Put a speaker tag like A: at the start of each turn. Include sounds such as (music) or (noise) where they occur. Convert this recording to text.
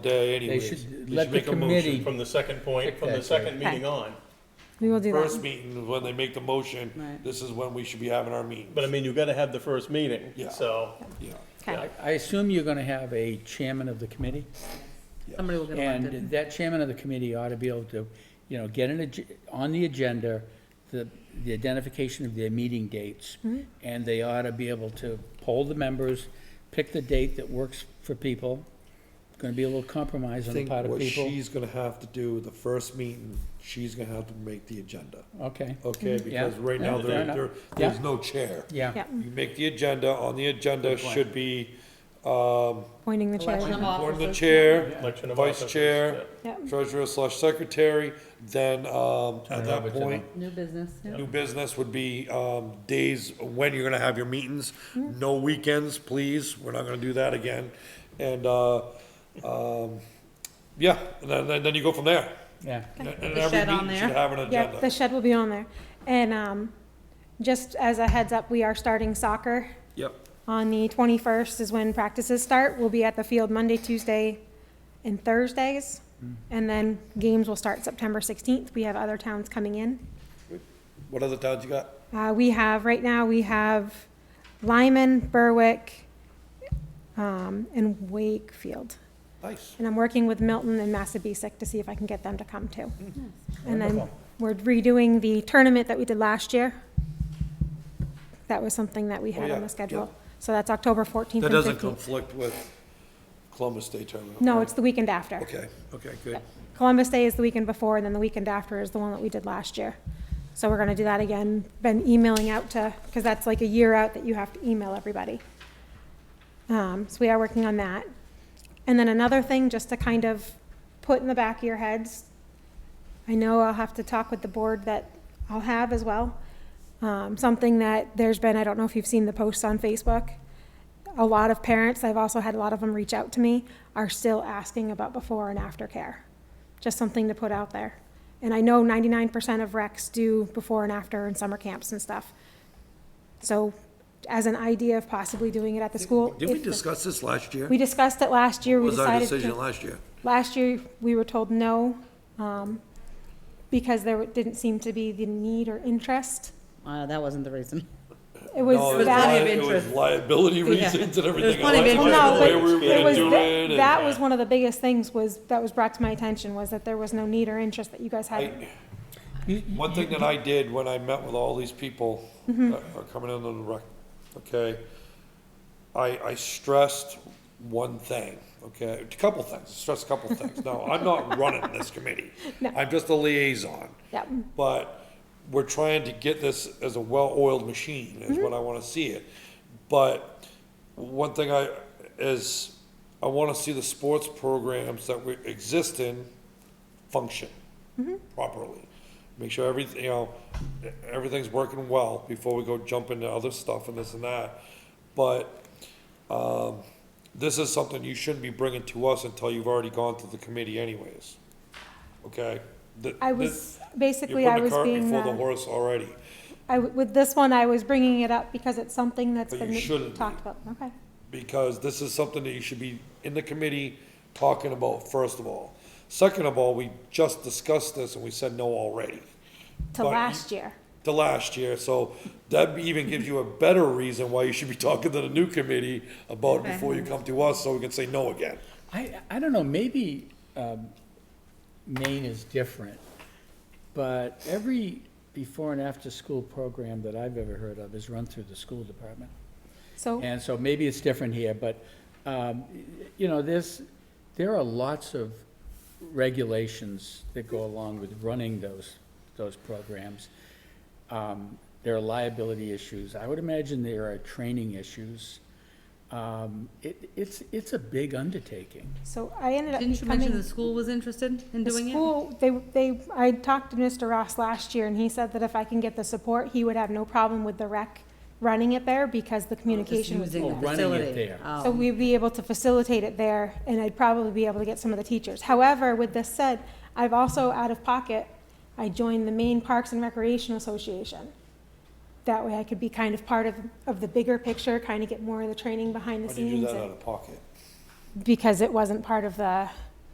A: day anyways.
B: should
A: Uh, They
B: let the
A: make a motion
B: committee-
C: From the second point, from the
B: Exactly.
C: second meeting on.
D: We will do
A: First
D: that.
A: meeting, is when they make the motion,
E: Right.
A: this is when we should be having our meetings.
C: But I mean, you gotta have the first meeting,
A: Yeah.
C: so.
A: Yeah.
D: Okay,
B: I assume you're gonna have a chairman of the committee,
E: Somebody will get elected.
B: and that chairman of the committee ought to be able to, you know, get an, ag- on the agenda, the, the identification of their meeting dates, and they ought to be able to poll the members, pick the date that works for people. Gonna be a little compromise
F: I
B: on the
F: think
B: part of
F: what
B: people.
F: she's gonna have to do, the first meeting, she's gonna have to make the agenda,
B: Okay,
A: Okay, because right now,
B: Mm, Yeah,
A: there,
B: fair
A: there,
B: enough.
A: there's
B: Yeah.
A: no chair.
B: yeah,
D: yeah,
A: You make the agenda, on the agenda should be, um,
D: pointing the
E: Election
D: chair.
E: of
A: board of the
E: officers.
A: chair,
C: election of
A: vice
C: officers,
A: chair,
D: yeah. Yep.
A: treasurer slash secretary, then, um, at that point,
E: New business, yeah.
A: New business would be, um, days when you're gonna have your meetings,
D: Mm-hmm.
A: no weekends, please, we're not gonna do that again. And, uh, um, yeah, and then- then, then you go from there.
B: yeah.
A: And and
E: The
A: every
E: shed on
A: meeting
E: there.
A: should have an
D: Yeah, the
A: agenda.
D: shed will be on there. And, um, just as a heads up, we are starting soccer.
A: Yep.
D: On the twenty-first is when practices start. We'll be at the field Monday, Tuesday, and Thursdays. And then games will start September sixteenth. We have other towns coming in.
A: What other towns you got?
D: Uh, we have, right now, we have Lyman, Berwick, um, and Wakefield.
A: Nice.
D: And I'm working with Milton and Massabesic to see if I can get them to come too.
A: Mm-hmm.
D: And then
B: Wonderful.
D: we're redoing the tournament that we did last year. That was something that we
A: Oh,
D: had
A: yeah,
D: on the schedule. So that's October 14th and
A: That doesn't
D: 15th.
A: conflict with Columbus Day tournament.
D: No,
A: right?
D: it's the weekend after.
A: Okay, okay, good.
D: Columbus Day is the weekend before, and then the weekend after is the one that we did last year. So we're gonna do that again. Been emailing out to, because that's like a year out that you have to email everybody. Um, so we are working on that. And then another thing, just to kind of put in the back of your heads, I know I'll have to talk with the board that I'll have as well. Um, something that there's been, I don't know if you've seen the posts on Facebook. A lot of parents, I've also had a lot of them reach out to me, are still asking about before and after care. Just something to put out there. And I know ninety-nine percent of recs do before and after in summer camps and stuff. So as an idea of possibly doing it at the school.
F: Did we
D: if the-
F: discuss this last year?
D: we discussed it last year,
F: What
D: we
F: was our
D: decided
F: decision
D: to,
F: last year?
D: last year, we were told no, um, because there didn't seem to be the need or interest.
E: Uh, that wasn't the reason.
D: It
A: No, it
D: was
A: was
E: plenty
D: that,
E: of
A: li- It was
E: interest.
A: liability
E: Yeah.
A: reasons and everything.
E: There's plenty of
A: else,
D: well,
E: interest.
A: the
D: no,
A: way
D: but
A: we were
D: it
A: gonna
D: was,
A: do
D: that,
A: it
D: that
A: and-
D: was one of the biggest things was, that was brought to my attention, was that there was no need or interest that you guys had.
A: I-
B: You-
A: One thing that I did when I met with all these people
D: Mm-hmm.
A: that are coming in on the rec, okay? I, I stressed one thing, okay, a couple things, stressed a
D: (laughs)
A: couple things. Now, I'm not running this committee.
D: No.
A: I'm just a liaison.
D: Yep.
A: But we're trying to get this as a well-oiled machine,
D: Mm-hmm.
A: is what I wanna see it. But one thing I, is, I wanna see the sports programs that we exist in function properly. Make sure everything, you know, everything's working well before we go jump into other stuff and this and that. But, um, this is something you shouldn't be bringing to us until you've already gone to the committee anyways. Okay? Th-
D: I
A: this-
D: was,
A: You're
D: basically, I
A: putting the
D: was
A: cart
D: being,
A: before the
D: uh,
A: horse already.
D: I, w- with this one, I was bringing it up because it's something that's
A: But you
D: been
A: shouldn't be.
D: talked about, okay.
A: because this is something that you should be in the committee talking about, first of all. Second of all, we just discussed this and we said no already. But
D: To
A: you-
D: last year,
A: To last year, so that even gives you a better reason why you should be (laughs) talking to the new committee about it before you come to us, so we can say no again.
B: I, I don't know, maybe um, Maine is different, but every before and after-school program that I've ever heard of is run through the school department.
D: so.
B: And so maybe it's different here, but, um, you know, there's, there are lots of regulations that go along with running those, those programs. Um, There are liability issues. I would imagine there are training issues. Um, It, it's, it's a big undertaking.
D: So I ended up
E: Didn't you mention the
D: becoming,
E: school was interested in
D: the
E: doing it?
D: school, they, they, I talked to Mr. Ross last year and he said that if I can get the support, he would have no problem with the rec running it there because the communication
E: Just
D: was.
E: using
B: Oh,
E: the
B: running it
E: facility.
B: there.
E: Oh.
D: So we'd be able to facilitate it there and I'd probably be able to get some of the teachers. However, with this said, I've also out of pocket, I joined the Maine Parks and Recreation Association. That way I could be kind of part of, of the bigger picture, kind of get more of the training behind
A: Why do
D: the
A: you do
D: scenes.
A: that
D: and-
A: out of pocket?
D: Because it wasn't part of the